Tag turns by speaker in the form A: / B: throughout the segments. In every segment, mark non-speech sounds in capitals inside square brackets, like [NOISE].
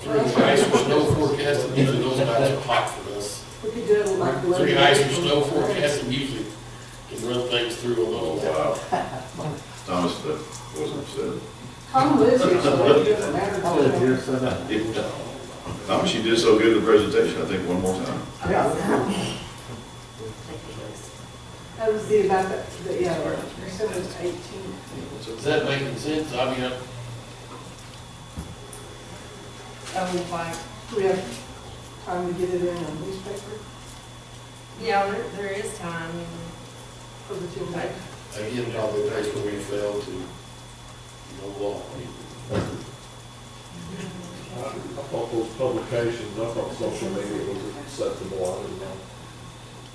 A: Three ice or snow forecast, and usually those nights are hot for us.
B: We could do it with like. the
A: Three ice or snow forecast, and usually can run things through a little while.
C: Thomas, that wasn't said.
B: Tom lives here,
D: [LAUGHS]
B: so it doesn't matter.
D: I live here, so that,
C: Thomas, you did so good in the presentation, I think, one more time.
D: yeah.
B: That was the, about the, the, yeah, or seven, eighteen.
A: So is that making sense? I mean, I-
E: Oh, like,
B: Do we have time to get it in a newspaper
E: yeah, there, there is time.
B: for the two night?
A: again, probably days where we fail to, no law.
F: I thought those publications, I thought social media was acceptable, I didn't know.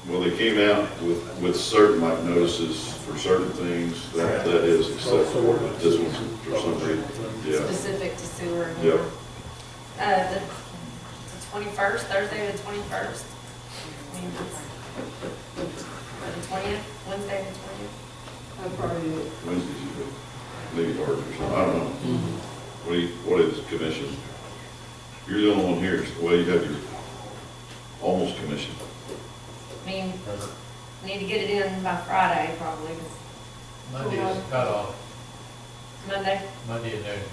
C: Well, they came out with, with certain, like notices for certain things, that, that is acceptable, but this one's for some reason, yeah.
E: Specific to sewer.
C: Yeah.
E: Uh, the twenty-first, Thursday the twenty-first. The twentieth, Wednesday the twentieth.
B: I'd probably, do it.
C: Wednesday's, usually maybe hard or something, I don't know. What do you, what is commission? You're the only one here, so, well, you have your, almost commission.
E: I mean, we need to get it in by Friday probably, 'cause
G: Monday is cut off,
E: Monday.
G: Monday at noon.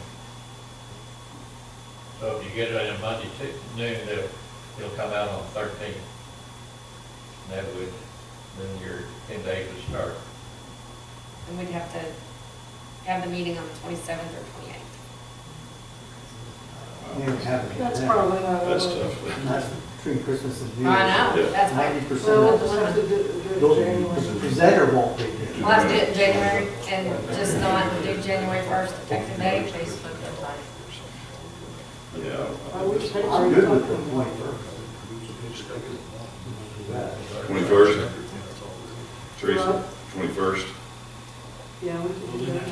G: So if you get it on Monday to noon, they'll, it'll come out on thirteenth. That would, then your ten days would start.
E: And we'd have to have the meeting on the twenty-seventh or twenty-eighth.
D: You don't have it.
B: that's probably not.
C: That's tough.
D: And that's between Christmas and
E: I
D: New
E: know,
D: Year's.
E: that's
D: Ninety
E: why,
D: percent
B: Well, we'll
D: of
B: just have to do it
D: those,
B: in
D: the
B: January.
D: presenter won't be here.
E: we'll have to do it in January and just not do January first effective date.
C: Yeah.
B: I wish they
D: I'm
B: already
D: good
B: talked
D: with
B: to
D: the
B: them.
D: twenty-first.
C: Twenty-first? Teresa, twenty-first?
B: Yeah, we could do that.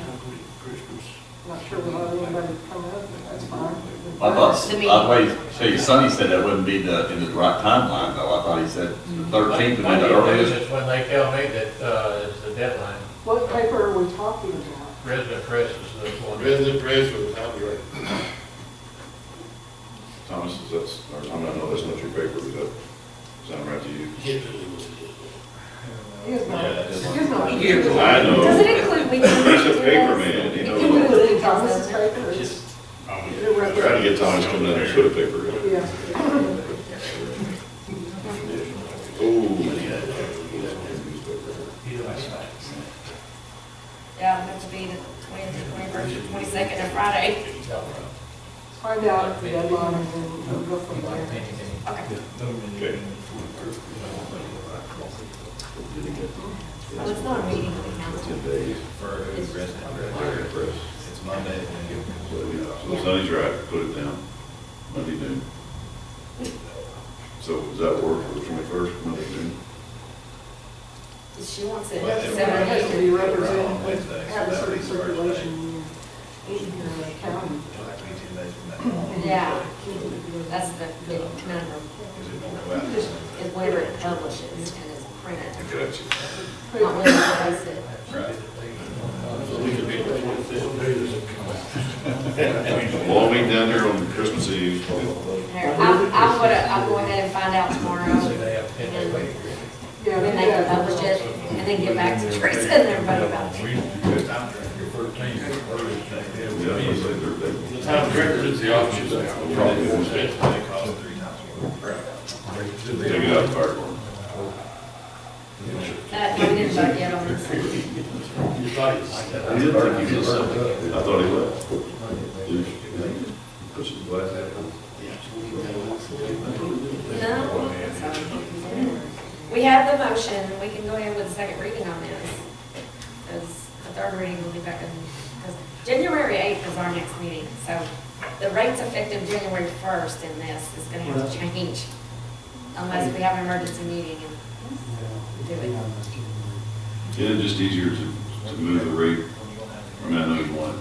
B: Not sure we'll have anybody come up, but that's fine.
H: I thought,
E: The
H: I wait, show you, Sonny said that wouldn't be the, in the right timeline, though, I thought he said the thirteenth would be the
G: Monday at noon
H: earliest.
G: is when they tell me that, uh, is the deadline.
B: What paper are we talking about?
G: Resident press is the one.
A: Resident press would help you, right?
C: Thomas, is that's, or, I don't know, that's not your paper, is that sound right to you?
A: It really was good.
B: He is not,
C: Yeah, it is.
B: he is not.
C: I
E: Does
C: know.
E: it
C: [LAUGHS]
E: include weekend?
C: He's a paper man, he
B: You
C: knows.
B: can do it in Thomas's paper.
C: I'm Trying to get Thomas to come down and put a paper in.
B: Yeah.
C: Oh.
E: Yeah, it would be the twentieth, twenty-first, twenty-second, and Friday.
B: Find out the deadline and then we'll go from there.
E: Okay,
C: Okay.
E: well, it's not a meeting of the council.
C: Ten days. It's Monday. So Sonny's right, put it down, Monday noon. So does that work for the twenty-first, Monday noon?
E: She wants it
B: That's
E: seven
B: what it has to be
E: days.
B: represented, with- have a certain circulation in your county.
E: Yeah, that's the big conundrum, is where it publishes and is printed.
C: Gotcha.
E: Not where it is it.
A: So we could be the twenty-fifth.
C: Long meeting down here on Christmas Eve.
E: Here, I'm, I'm gonna, I'll go ahead and find out tomorrow, and
B: Yeah,
E: then they can publish it, and then get back to [LAUGHS] Teresa and everybody about it.
C: Yeah, I was gonna say Thursday.
A: The time record is the office, that's probably more expensive.
C: Take it out, fire department.
E: That, we didn't vote yet on this.
A: Your body is-
C: I did think he was something. I thought he left. Put some glass out.
E: No. We have the motion, we can go ahead with the second reading on this. Because the third reading will be back in, because January eighth is our next meeting, so the rates effective January first in this is gonna have to change. Unless we have an emergency meeting and
C: Isn't it just easier to, to move the rate? I mean, I know you want it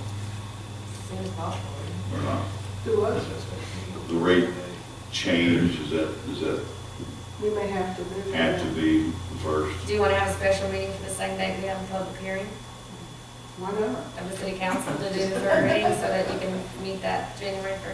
E: as soon as possible.
C: or not.
B: Do what?
C: The rate change, is that, is that
B: We may have to move.
C: have to be the first?
E: Do you wanna have a special meeting for the same day we have a public hearing
B: Why not?
E: of the city council to do the third reading so that you can meet that January first